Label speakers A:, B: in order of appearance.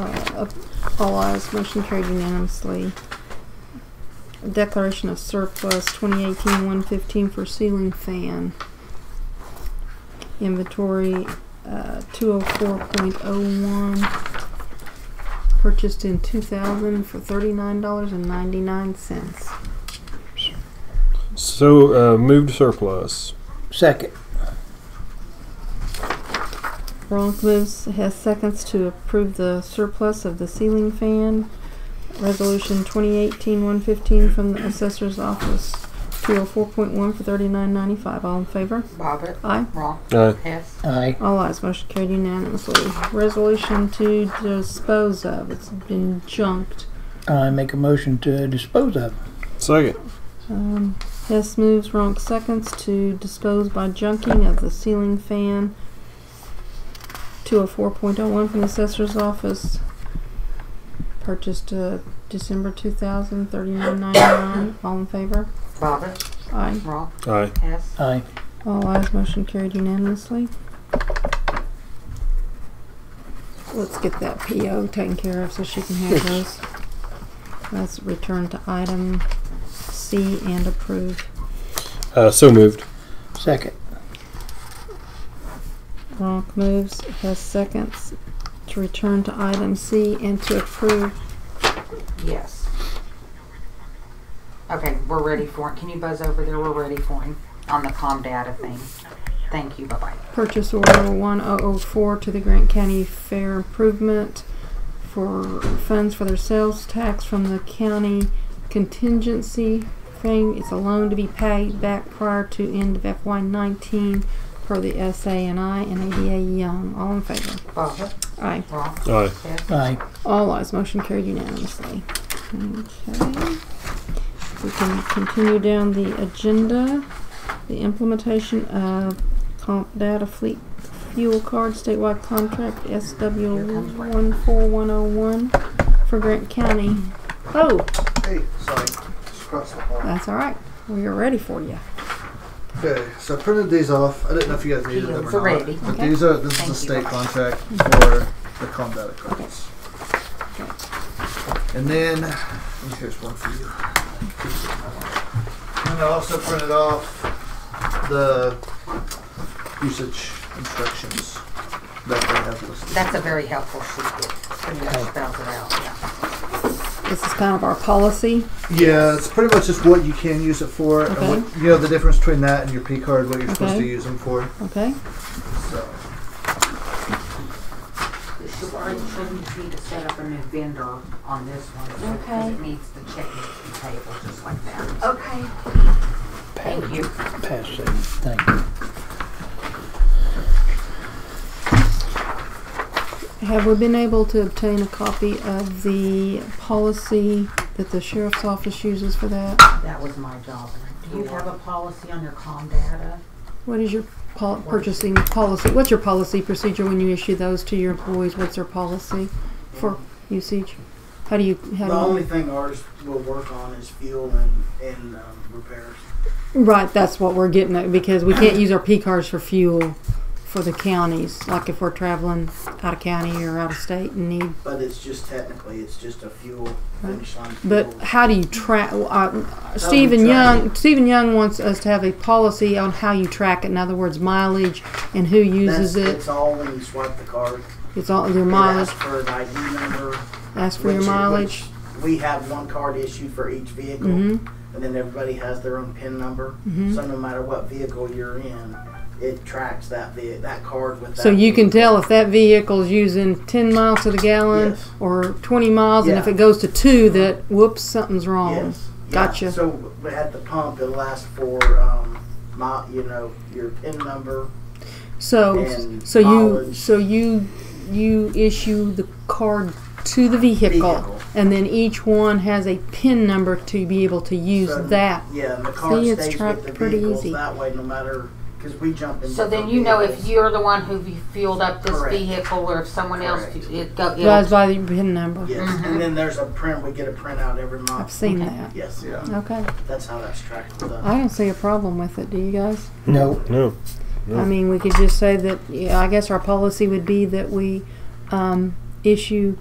A: Uh, op- All eyes, motion carried unanimously. Declaration of surplus 2018-115 for ceiling fan. Inventory uh, 204.01. Purchased in 2000 for $39.99.
B: So uh, moved surplus.
C: Second.
A: Ronk moves, has seconds to approve the surplus of the ceiling fan. Resolution 2018-115 from the assessor's office, 204.1 for 39.95. All in favor?
D: Bobbit,
A: Aye.
D: wrong,
B: Aye.
D: Hess,
C: Aye.
A: All ayes, motion carried unanimously. Resolution to dispose of, it's been junked.
C: I make a motion to dispose of.
B: Second.
A: Um, Hess moves, Ronk seconds to dispose by junking of the ceiling fan. 204.01 from the assessor's office. Purchased uh, December 2000, 39.99. All in favor?
D: Bobbit,
A: Aye.
D: wrong,
B: Aye.
D: Hess,
C: Aye.
A: All ayes, motion carried unanimously. Let's get that PO taken care of so she can have those. Let's return to item C and approve.
B: Uh, so moved.
C: Second.
A: Ronk moves, has seconds to return to item C and to approve.
D: yes. Okay, we're ready for it. Can you buzz over there? We're ready for him on the calm data thing. Thank you, bye-bye.
A: Purchase order one oh oh four to the Grant County Fair Improvement for funds for their sales tax from the county contingency thing. It's a loan to be paid back prior to end of FY nineteen per the SANI and ADA Young. All in favor?
D: Bobbit,
A: Aye.
D: wrong,
B: Aye.
D: Hess,
C: Aye.
A: All ayes, motion carried unanimously. Okay. We can continue down the agenda. The implementation of comp data fleet fuel card statewide contract
D: Here comes
A: SW
D: Brad.
A: one four one oh one for Grant County. Oh,
E: Hey, sorry, just across the hall.
A: that's all right. We are ready for you.
E: Okay, so I printed these off. I didn't know if you guys needed them
D: Those
E: or
D: are
E: not.
D: ready.
E: But
A: Okay. Mm-hmm.
E: these are this
D: Thank you.
E: is a state contract for the combat cards.
A: Okay.
E: And then and here's one for you. And I also printed off the usage instructions that they have listed.
D: that's a very helpful sheet. Pretty much spells it out, yeah.
A: This is kind of our policy.
E: Yeah, it's pretty much just what you can use it for,
A: Okay.
E: and what, you know the difference between that and your P card, what you're supposed
A: Okay.
E: to use them for.
A: Okay.
E: So.
D: It's already shouldn't you need to set up a new vendor on this one. so- 'cause
F: Okay.
D: It needs the check needs to be payable just like that.
F: Okay.
D: Thank you.
C: Pass it. Thank you.
A: Have we been able to obtain a copy of the policy that the sheriff's office uses for that?
D: That was my job. Do you have a policy on your calm data?
A: What is your pol- purchasing policy? What's your policy procedure when you issue those to your employees? What's their policy for usage? How do you,
G: The
A: how do
G: only
A: you?
G: thing ours will work on is fuel and, and um, repairs.
A: Right, that's what we're getting at, because we can't use our P cards for fuel for the counties, like if we're traveling out of county or out of state and need.
G: But it's just technically, it's just a fuel finish line.
A: But
G: fuel.
A: how do you track, uh, Stephen
G: track
A: Young, Stephen Young wants us to have a policy on how you track it, in other words, mileage and who uses
G: That's-
A: it.
G: It's all when you swipe the card.
A: It's all your
G: It
A: mileage,
G: asks for an ID number.
A: ask for your
G: which-
A: mileage.
G: which We have one card issued for each vehicle,
A: Mhm.
G: and then everybody has their own PIN number.
A: Mm-hmm.
G: So no matter what vehicle you're in, it tracks that ve- that card with.
A: So
G: that
A: you can
G: vehicle.
A: tell if that vehicle's using ten miles to the gallon
G: Yes.
A: or twenty miles, and if
G: Yeah.
A: it goes to two, that whoops, something's wrong.
G: Yes. yeah.
A: Gotcha.
G: So w- at the pump, it'll ask for um, my, you know, your PIN number.
A: So,
G: And
A: so you,
G: mileage.
A: so you, you issue the card to the vehicle,
G: Vehicle.
A: and then each one has a pin number to be able to use
G: So,
A: that.
G: Yeah, and the car
A: See, it's
G: stays
A: tracked
G: with the
A: pretty
G: vehicles
A: easy.
G: that way, no matter because we jump in.
D: So then
G: different
D: you know if
G: vehicles.
D: you're the one who fueled up this
G: Correct.
D: vehicle or if someone else,
G: Correct.
D: it go,
A: Guys,
D: it'll,
A: by the pin number,
G: Yes,
D: Mm-hmm.
G: and then there's a print. We get a printout every month.
A: I've seen
D: Okay.
A: that.
G: Yes,
E: Yeah.
A: Okay,
G: that's how that's tracked with us.
A: I don't see a problem with it. Do you guys?
C: No.
B: No.
A: I mean, we could just say that, yeah, I guess our policy would be that we, um, issue